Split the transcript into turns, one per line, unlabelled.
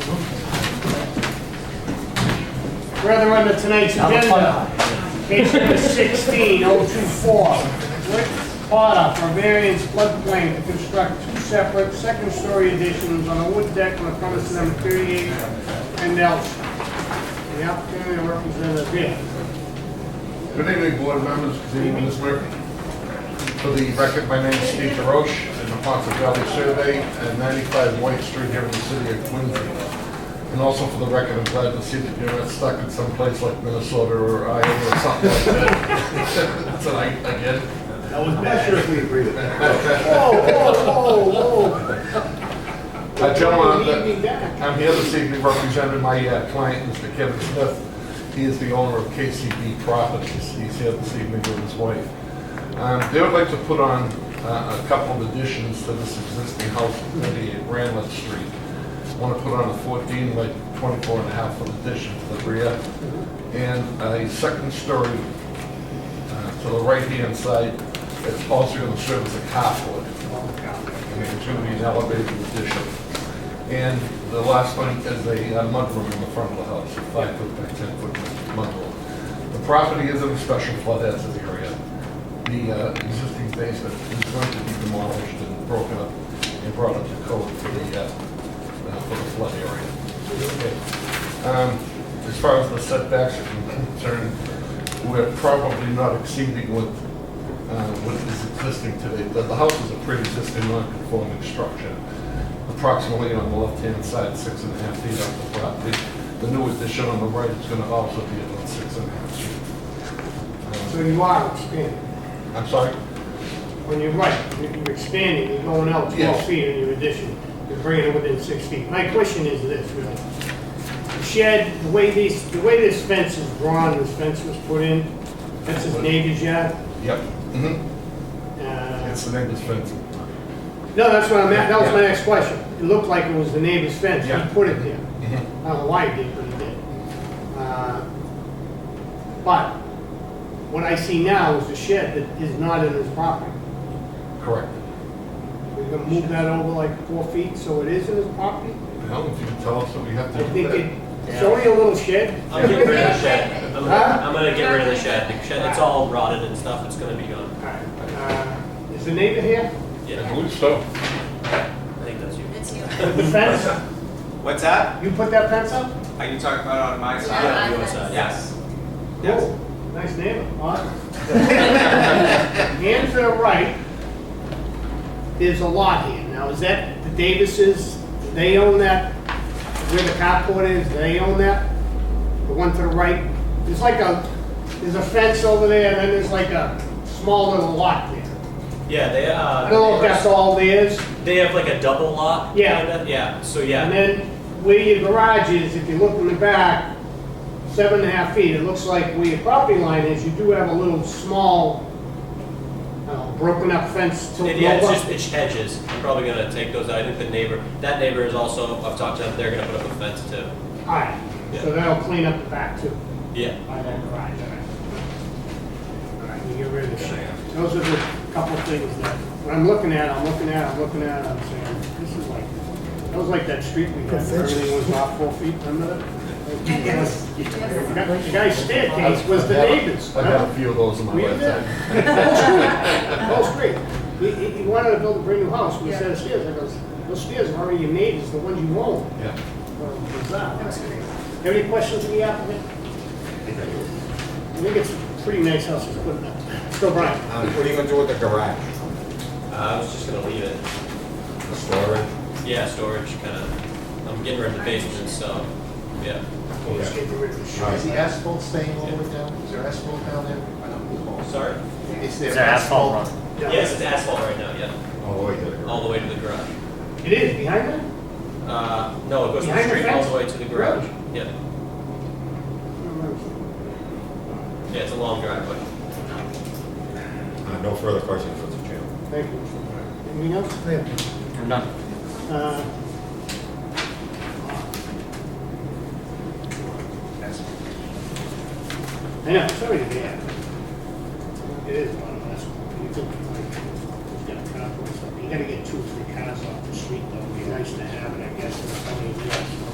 Further under tonight's agenda, case number 16024, Rick Potter for variance floodplain to construct two separate second-story additions on a wood deck on the premise number 38 and Nelson. The applicant and representative here.
Good evening, board members, good evening, Ms. Murphy. For the record, my name is Steve DeRoche, in the Ponca Valley Survey at 95 White Street here in the city of Quincy. And also for the record, I'm glad to see that you're not stuck in some place like Minnesota or Iowa or something like that. Tonight, again.
I'm not sure if we agree with that. Whoa, whoa, whoa,
Uh, Gentlemen,
Lead me back.
I'm here this evening representing my uh, client, Mr. Kevin Smith. He is the owner of KCB Properties. He's here this evening with his wife. Um, They would like to put on uh, a couple of additions to this existing house at 38 Ramlett Street. Want to put on a 14, like 24 and a half foot addition to the rear, and a second story uh, to the right-hand side. It's also going to serve as a carport and it's going to be an elevated addition. And the last one is a uh, mudroom in the front of the house, a five foot by ten foot mudroom. The property is in a special flood hazard area. The uh, existing basement is going to be demolished and broken up and brought up to code for the, uh, uh, for the flood area. Okay. Um, As far as the setbacks are concerned, we're probably not exceeding what uh, what is existing today. The the house is a pre-existing non-conforming structure, approximately on the left-hand side, six and a half feet off the property. The new addition on the right is going to also be about six and a half feet.
So you are expanding.
Um, I'm sorry?
When you're right, you're expanding, you're going out 12
Yes.
feet in your addition, you're bringing it within six feet. My question is this, really. The shed, the way these, the way this fence is drawn, this fence was put in, that's his neighbor's yard.
Yep. Mhm.
Uh,
It's the neighbor's fence.
No, that's what I'm, at- that was my next question. It looked like it was the neighbor's fence,
Yeah.
he put it there.
Mhm.
I don't know why he did, but he did. Uh, But what I see now is the shed that is not in his property.
Correct.
We're gonna move that over like four feet, so it is in his property?
Now, if you can tell us what we have
I
to do
think
there.
it, it's only a little shed.
I'm getting rid of the shed. I'm,
Huh?
I'm gonna get rid of the shed. The shed, it's all rotted and stuff. It's gonna be gone.
Alright, uh, Is the neighbor here?
I
Yeah,
believe so.
I think that's you.
It's you.
The fence?
What's that?
You put that fence up?
Are you talking about on my side?
Yeah,
on your
I-
side.
Yes. Yes.
Cool. Oh, Nice neighbor, huh? And to the right, there's a lot here. Now, is that the Davises? Do they own that? Where the carport is, do they own that? The one to the right? There's like a, there's a fence over there, and then there's like a small little lot there.
Yeah, they uh.
I don't know if that's all theirs.
They have like a double lot.
Yeah.
Kinda. Yeah. So
And
yeah.
then where your garage is, if you look in the back, seven and a half feet, it looks like where your property line is, you do have a little small, uh, broken up fence
It-
tilted
yeah, it's
over.
just it's hedges. I'm probably gonna take those out. I think the neighbor, that neighbor is also. I've talked to them. They're gonna put up a fence too.
Alright, so
Yeah.
that'll clean up the back too,
Yeah.
by that garage, alright. Alright, we get rid of the shed. Those are the couple things that, when I'm looking at, I'm looking at, I'm looking at, I'm saying, this is like, that was like that street we had, where everything was off four feet, remember that?
Yes.
The guy- the guy's staircase was the neighbor's.
I've had a few of those in my
We did.
lifetime.
Whole street. He, he, he wanted to build a brand new house with a set of stairs. I goes, those stairs are already your neighbors, the ones you own.
Yeah.
Well, bizarre. Have any questions for the applicant? I think it's a pretty nice house he's putting up. Still Brian.
Um, What are you gonna do with the garage?
Uh, I was just gonna leave it.
Store it?
Yeah, storage kind of. I'm getting rid of the basement, so yeah.
Let's get rid of the shit.
Is the asphalt staying all the way down? Is there asphalt down there?
Sorry.
Is there asphalt?
Yes, it's asphalt right now. Yeah,
Oh, wait, the
all
garage.
the way to the garage.
It is, behind that?
Uh, no, it goes from the
Behind the
street all
fence?
the way to the garage. Yeah. Yeah, it's a long driveway.
Uh, No further questions from the chairman.
Thank you. Anything else? Uh, I know, sorry to be here. It is one of us. You think, like, you gotta cut up or something. You gotta get two or three cars off the street, though. It'd be nice to have.